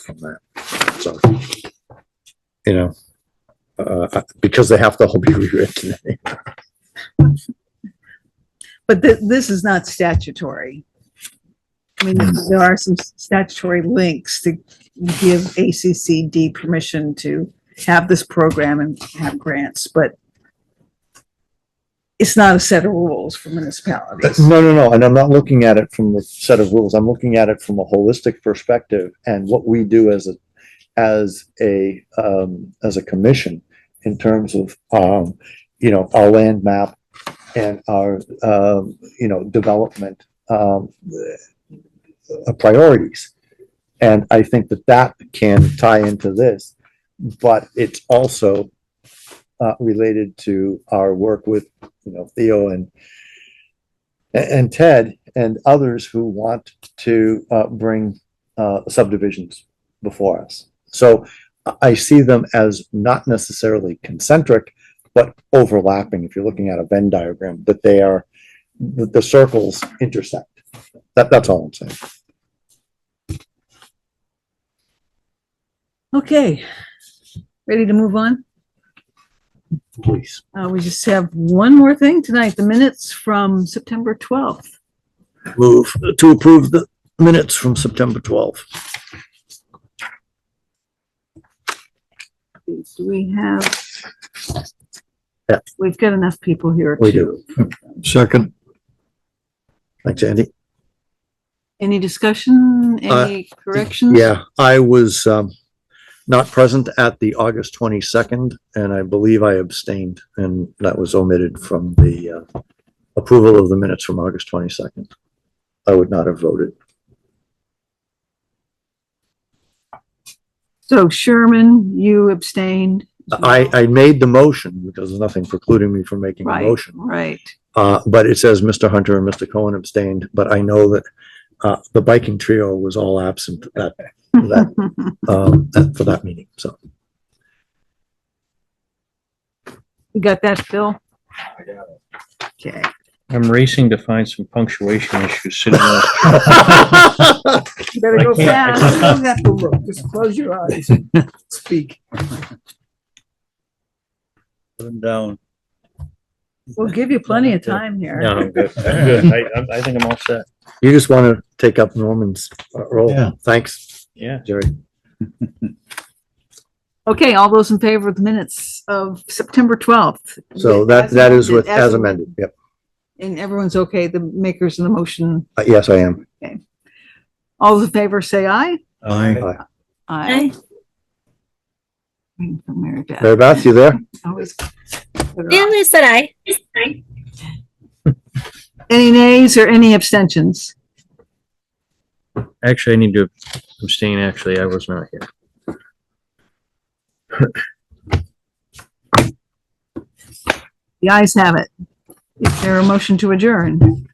from that. So, you know, uh, because they have to all be rewritten. But thi- this is not statutory. I mean, Hmm. there are some statutory links to give ACCD permission to have this program and have grants, but it's not a set of rules for municipalities. No, no, no. And I'm not looking at it from the set of rules. I'm looking at it from a holistic perspective and what we do as a, as a, um, as a commission in terms of, um, you know, our land map and our, um, you know, development, um, uh, priorities. And I think that that can tie into this, but it's also uh, related to our work with, you know, Theo and a- and Ted and others who want to uh, bring uh, subdivisions before us. So I- I see them as not necessarily concentric, but overlapping. If you're looking at a Venn diagram, that they are that the circles intersect. That that's all I'm saying. Okay, ready to move on? Please. Uh, we just have one more thing tonight, the minutes from September 12th. Move to approve the minutes from September 12th. Do we have? Yeah. We've got enough people here We to, Second. Thanks, Andy. any discussion, Uh, any corrections? Yeah, I was um not present at the August twenty-second, and I believe I abstained, and that was omitted from the uh approval of the minutes from August twenty-second. I would not have voted. So Sherman, you abstained. I I made the motion because there's nothing precluding me from making a Right, motion. Right. Uh, but it says Mr. Hunter and Mr. Cohen abstained, but I know that uh the biking trio was all absent that that um that- for that meeting, so. You got that, Phil? Okay. I'm racing to find some punctuation issues sitting there. You better go I can't- I fast. can't- don't have to look, just close your eyes and speak. Put 'em down. We'll give you plenty of time here. No, I'm good. I'm good. I, I'm- I think I'm all set. You just want to take up Norman's uh, Yeah. role. Thanks, Yeah. Jerry. Okay, all those in favor of the minutes of September 12th? So that, that is with, as amended. Yep. And everyone's okay, the makers of the motion, Uh, Yes, I am. all those in favor say aye? I Aye. Waiting for Mary Beth. Mary Beth, you there? Always- Yeah, I said I. Any nays or any abstentions? Actually, I need to abstain. Actually, I was not here. The ayes have it. Is there a motion to adjourn?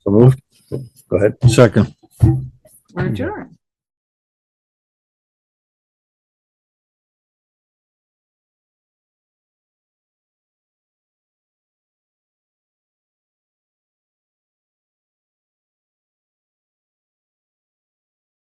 So moved. Go ahead. Second. We're adjourned.